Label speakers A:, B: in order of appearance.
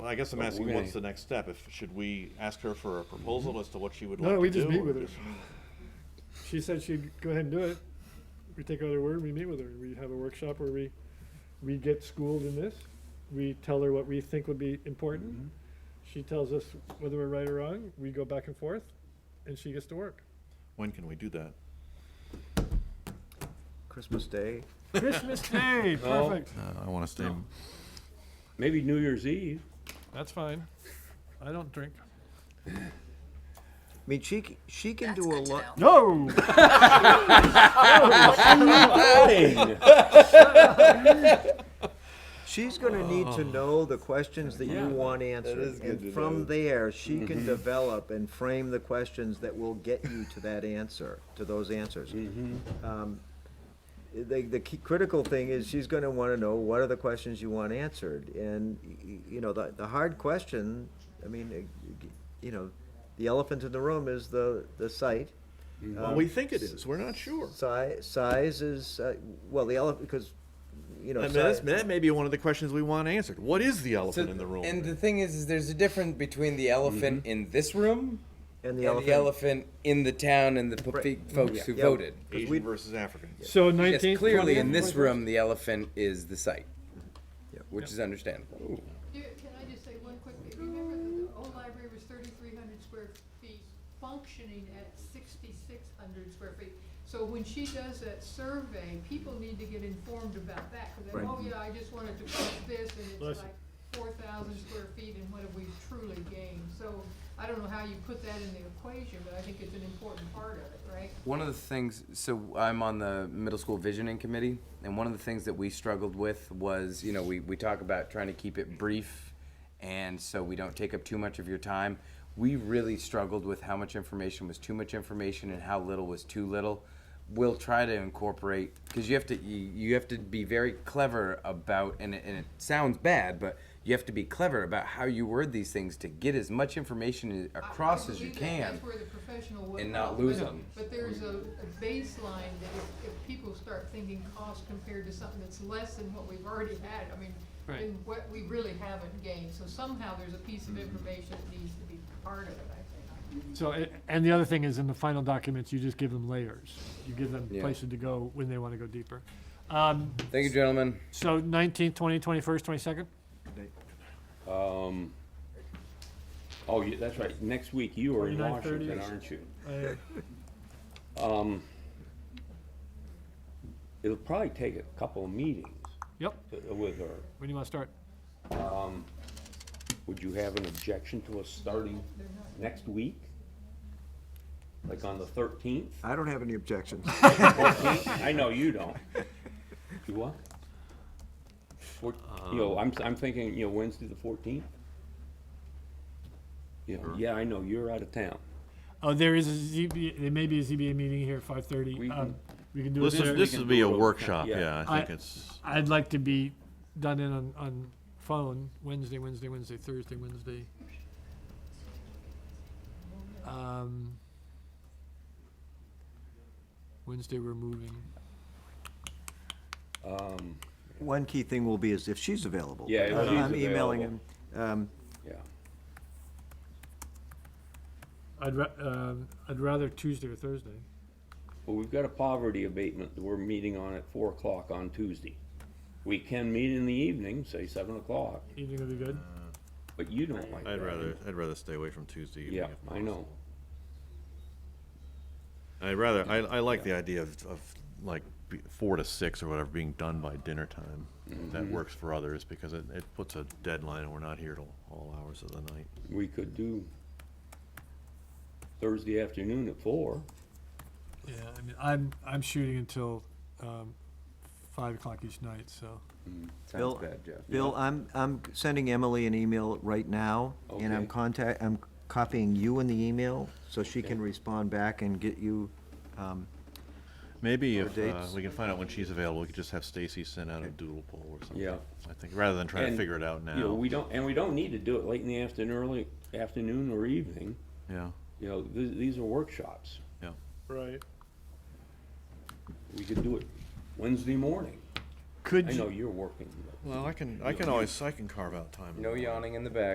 A: Well, I guess I'm
B: But
A: asking,
B: we're
A: what's the
B: gonna-
A: next step? If, should we ask her for a proposal as to what she would
C: No,
A: like to do?
C: we just meet
A: or
C: with her.
A: just-
C: She said she'd go ahead and do it. We take her at her word, we meet with her, we have a workshop where we, we get schooled in this. We tell her what we think would be
D: Mm-hmm.
C: important. She tells us whether we're right or wrong, we go back and forth, and she gets to work.
A: When can we do that?
E: Christmas Day.
C: Christmas Day,
B: No.
C: perfect.
A: I wanna stay.
B: Maybe New Year's Eve.
C: That's fine. I don't drink.
E: I mean, she c- she can
F: That's
E: do a
F: good to
E: lot.
F: know.
C: No!
E: She's going to need to know the questions that you want answered, and from there she can develop and frame the questions that will get you to that answer, to those answers. Um, the, the key, critical thing is she's going to want to know what are the questions you want answered, and y- y- you know the the hard question. I mean, uh, you know, the elephant in the room is the the site.
A: Well, we think it is, we're not sure.
E: Size, size is uh, well the elephant because you know
A: I mean,
E: si-
A: that's, that may be one of the questions we want answered. What is the
D: So-
A: elephant in the room? Mm-hmm.
D: And the thing is, is there's a difference between the elephant in this
E: and
D: room and the elephant in the town and the po-
E: Right.
D: folks who
E: Yeah.
D: voted.
E: we-
A: Asian versus African.
C: So
D: Yes,
C: nineteenth.
D: clearly in this room, the elephant is the site,
E: Yep.
D: which is understandable.
G: Here, can I just say one quick, thing? remember that the old library was thirty-three hundred square feet, functioning at sixty-six hundred square feet. So when she does that survey, people need to get informed about that, cause they,
E: Right.
G: oh yeah, I just wanted to put this, and
C: Bless
G: it's
C: you.
G: like four thousand square feet, and what have we truly gained? So, I don't know how you put that in the equation, but I think it's an important part of it, right?
D: One of the things, so I'm on the middle school visioning committee, and one of the things that we struggled with was, you know, we, we talk about trying to keep it brief and so we don't take up too much of your time. We really struggled with how much information was too much information and how little was too little. We'll try to incorporate because you have to you, you have to be very clever about and it, and it sounds bad, but you have to be clever about how you word these things to get as much information
G: I- I
D: across as you
G: believe that.
D: can.
G: That's where the professional would
D: and not
G: help,
D: lose
G: but-
D: them.
G: But there's a a baseline that if, if people start thinking cost compared to something that's less than what we've already had, I mean, then what we really haven't gained, so somehow there's a piece of
D: Mm-hmm.
G: information that needs to be part of it, I think.
C: So, a- and the other thing is in the final documents, you just give them layers. You give them
D: Yeah.
C: places to go when they want to go deeper. Um,
D: Thank you, gentlemen.
C: so nineteenth, twenty, twenty-first, twenty-second?
B: Um, oh, yeah, that's right. Next week you are in
C: 29:30
B: Washington,
C: is-
B: aren't you?
C: I
B: Um, it'll probably take a couple of meetings
C: Yep,
B: to- with her.
C: when do you want to start?
B: Would you have an objection to us starting next week? Like on the thirteenth?
E: I don't have any objections.
B: I know you don't. You what? Four, you know, I'm, I'm thinking, you know, Wednesday the fourteenth? You know, yeah, I know, you're out of town.
C: Oh, there is a ZB, there may be a ZBA meeting here at five-thirty.
B: We can-
C: We can do it there.
B: this would be a workshop, yeah.
C: I think I-
A: it's.
C: I'd like to be done in on, on phone, Wednesday, Wednesday, Wednesday, Thursday, Wednesday. Um, Wednesday, we're moving.
B: Um,
E: One key thing will be is if she's available.
B: Yeah, if
E: I'm-
B: she's
E: I'm emailing
B: available.
E: him. Um,
B: yeah.
C: I'd ra- um, I'd rather Tuesday or Thursday.
B: Well, we've got a poverty abatement that we're meeting on at four o'clock on Tuesday. We can meet in the evening, say seven o'clock,
C: Evening would be good.
B: but you don't like that.
A: I'd rather, I'd rather stay away from Tuesday evening
B: Yeah,
A: if
B: I
A: possible.
B: know.
A: I'd rather, I, I like the idea of, of like be- four to six or whatever being done by dinner time. That works for others because it, it puts a deadline and we're not here till all hours of the night.
B: We could do Thursday afternoon at four.
C: Yeah, I mean, I'm I'm shooting until um, five o'clock each night, so
D: Sounds
E: Bill-
D: bad, Jeff.
E: Bill, I'm, I'm sending Emily an email right now, and I'm
B: Okay.
E: contact, I'm copying you in the email, so she can respond back and get you, um,
A: Maybe
E: Or
A: if uh,
E: dates.
A: we can find out when she's available, we could just have Stacy send out a doodle poll or something.
B: Yeah.
A: I think, rather than trying to
B: And,
A: figure it out
B: You know,
A: now.
B: we don't, and we don't need to do it late in the afternoon, early afternoon or evening.
A: Yeah,
B: You know, th- these are workshops.
A: yeah.
C: right.
B: We could do it Wednesday morning.
C: Could
B: I
C: you-
B: know you're working. but-
A: Well, I can, I can always, I can carve out time.
D: No yawning in the back.